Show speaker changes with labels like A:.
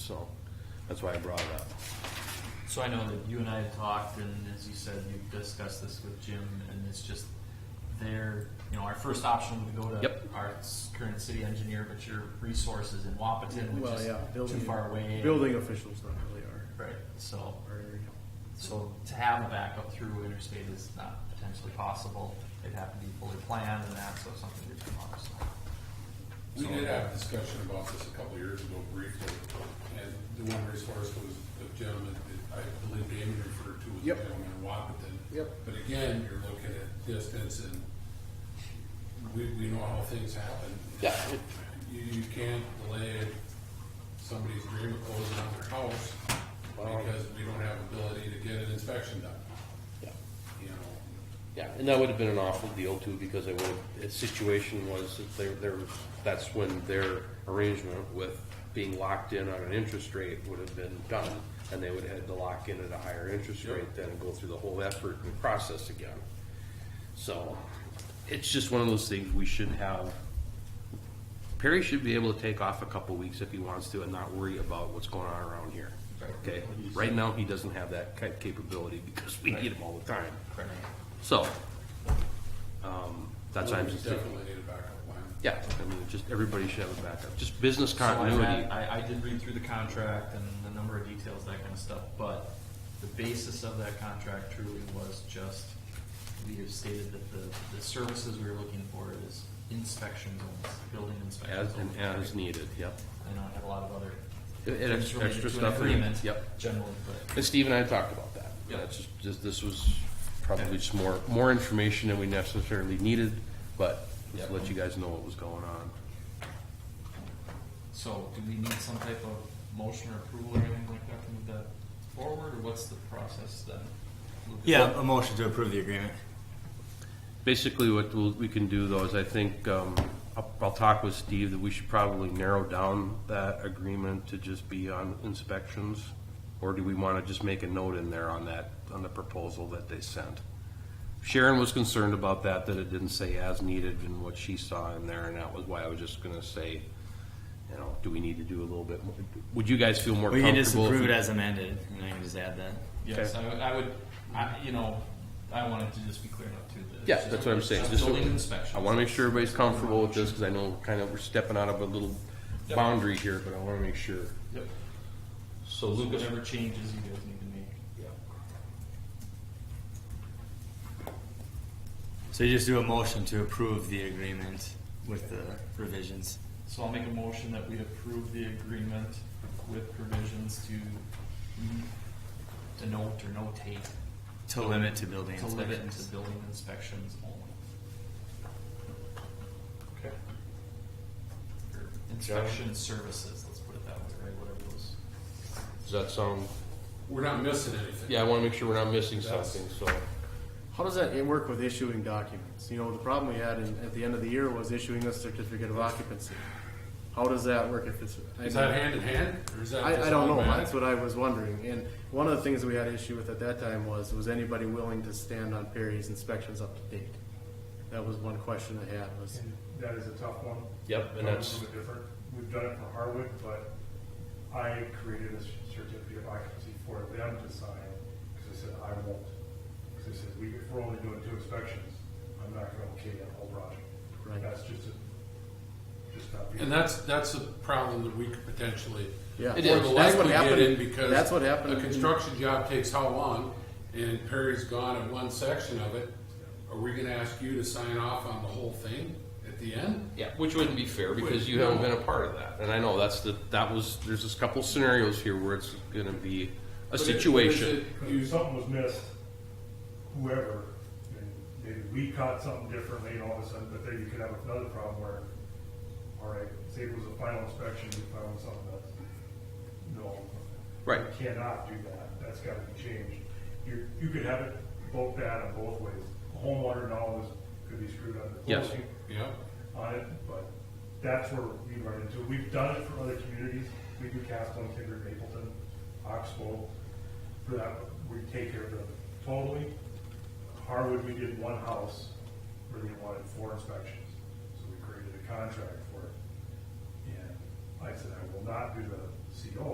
A: so that's why I brought it up.
B: So I know that you and I have talked, and as you said, you've discussed this with Jim, and it's just their, you know, our first option would go to
C: Yep.
B: our s- current city engineer, but your resources in Wapaton, which
D: Well,
B: is
D: yeah,
B: too
D: building,
B: far away. and-
D: building officials not really are,
B: Right, so,
D: our area.
B: so to have a backup through interstate is not potentially possible. It'd have to be fully planned and that, so if something did come up, so.
E: We did have a discussion about this a couple of years ago briefly, and the one resource was the gentleman that I believe Damon referred to as the
D: Yep.
E: gentleman in Wapaton.
D: Yep.
E: But again, you're looking at distance and we, we know how things happen.
C: Yeah.
E: You, you can't delay somebody's dream of closing on their house because we don't have ability to get an inspection done,
C: Yeah,
E: you know?
C: yeah, and that would have been an awful deal too, because it would, have- its situation was that they they're, that's when their arrangement with being locked in on an interest rate would have been done, and they would have had to lock in at a higher interest
E: Yep.
C: rate then and go through the whole effort and process again. So, it's just one of those things we should have. Perry should be able to take off a couple weeks if he wants to and not worry about what's going on around here. Okay, right now, he doesn't have that type capability because we need him all the time. So, um, that's why I'm
E: We
C: just,
E: Definitely need a backup plan.
C: yeah, I mean, just, everybody should have a backup, just business
B: So I had-
C: continuity.
B: I, I did read through the contract and the number of details, that kind of stuff, but the basis of that contract truly was just, we have stated that the, the services we were looking for is inspection zones, building inspections.
C: As, and as needed, yep.
B: I know I have a lot of other.
C: And ex-
B: things related
C: extra
B: to an
C: stuff in it,
B: agreement
C: yep.
B: Generally, but
C: And Steve and I talked about that.
B: Yeah.
C: That's just, just, this was probably just more, more information than we necessarily needed, but just to
B: Yeah.
C: let you guys know what was going on.
B: So do we need some type of motion or approval or anything like that to move that forward, or what's the process then? Lucas?
F: Yeah, a motion to approve the agreement.
C: Basically, what we'll- we can do though is I think, um, I'll, I'll talk with Steve that we should probably narrow down that agreement to just be on inspections. Or do we want to just make a note in there on that, on the proposal that they sent? Sharon was concerned about that, that it didn't say as needed and what she saw in there, and that was why I was just gonna say, you know, do we need to do a little bit more? Would you guys feel more
F: We
C: comfortable?
F: can just
C: if
F: approve
C: we-
F: it as amended, and I can just add that.
B: Yes, I would, I would, I, you know, I wanted to just be clear enough too. that it's
C: Yeah,
B: just-
C: that's what I'm
B: it's
C: saying.
B: just
C: Just-
B: Building inspection.
C: I want to make sure everybody's comfortable with this, because I know kind of we're stepping out of a little
B: Yep.
C: boundary here, but I want to make sure.
B: Yep.
C: So
B: So
C: Lucas,
B: whatever changes you guys need to make.
F: So you just do a motion to approve the agreement with the revisions.
B: So I'll make a motion that we approve the agreement with provisions to denote or notate,
F: To limit to building
B: to limit into
F: inspections.
B: building inspections only. Okay. Or inspection services, let's put it that way, right, whatever those.
C: does that sound,
E: We're not missing anything.
C: yeah, I want to make sure we're not missing
E: That's-
C: something, so.
D: How does that work with issuing documents? You know, the problem we had in, at the end of the year was issuing a certificate of occupancy. How does that work if it's? I
E: Is
D: mean-
E: that hand in hand, or is that?
D: I, I
E: just
D: don't know.
E: automatic?
D: That's what I was wondering. And one of the things that we had issue with at that time was, was anybody willing to stand on Perry's inspections up to date? That was one question I had was,
G: And that is a tough one.
C: Yep, and
G: That
C: that's-
G: was A little bit different. We've done it for Harwood, but I created a certificate of occupancy for them to sign, because I said, I won't. Because I said, we, if we're only doing two inspections, I'm not gonna okay that whole project.
D: Right.
G: That's just a, just not. being-
E: And that's, that's a problem that we could potentially.
D: Yeah. It
E: Or
D: is.
E: the
D: That's
E: less
D: what
E: we get
D: happened-
E: in because.
D: that's what happened
E: A
D: in-
E: construction job takes how long? And Perry's gone in one section of it. Are we gonna ask you to sign off on the whole thing at the end?
C: Yeah, which wouldn't be fair because you
E: Wait,
C: haven't
E: no.
C: been a part of that. And I know that's the, that was, there's this couple scenarios here where it's going to be a
E: But it-
C: situation.
E: but is it-
G: If
E: you-
G: something was missed, whoever, and maybe we caught something differently and all of a sudden, but then you could have another problem where, all right, say it was a final inspection, you found something that's, no.
C: Right.
G: you Cannot do that, that's gotta be changed. You, you could have it both bad and both ways. Homeowner dollars could be screwed up. in the
C: Yes.
G: closing
E: Yeah,
G: on it, but that's where we run into, it. we've done it for other communities, we do Castle, Kinder, Mapleton, Oxbow, for that, we take care of them totally. Harwood, we did one house where they wanted four inspections, so we created a contract for it. And I said, I will not do the CO,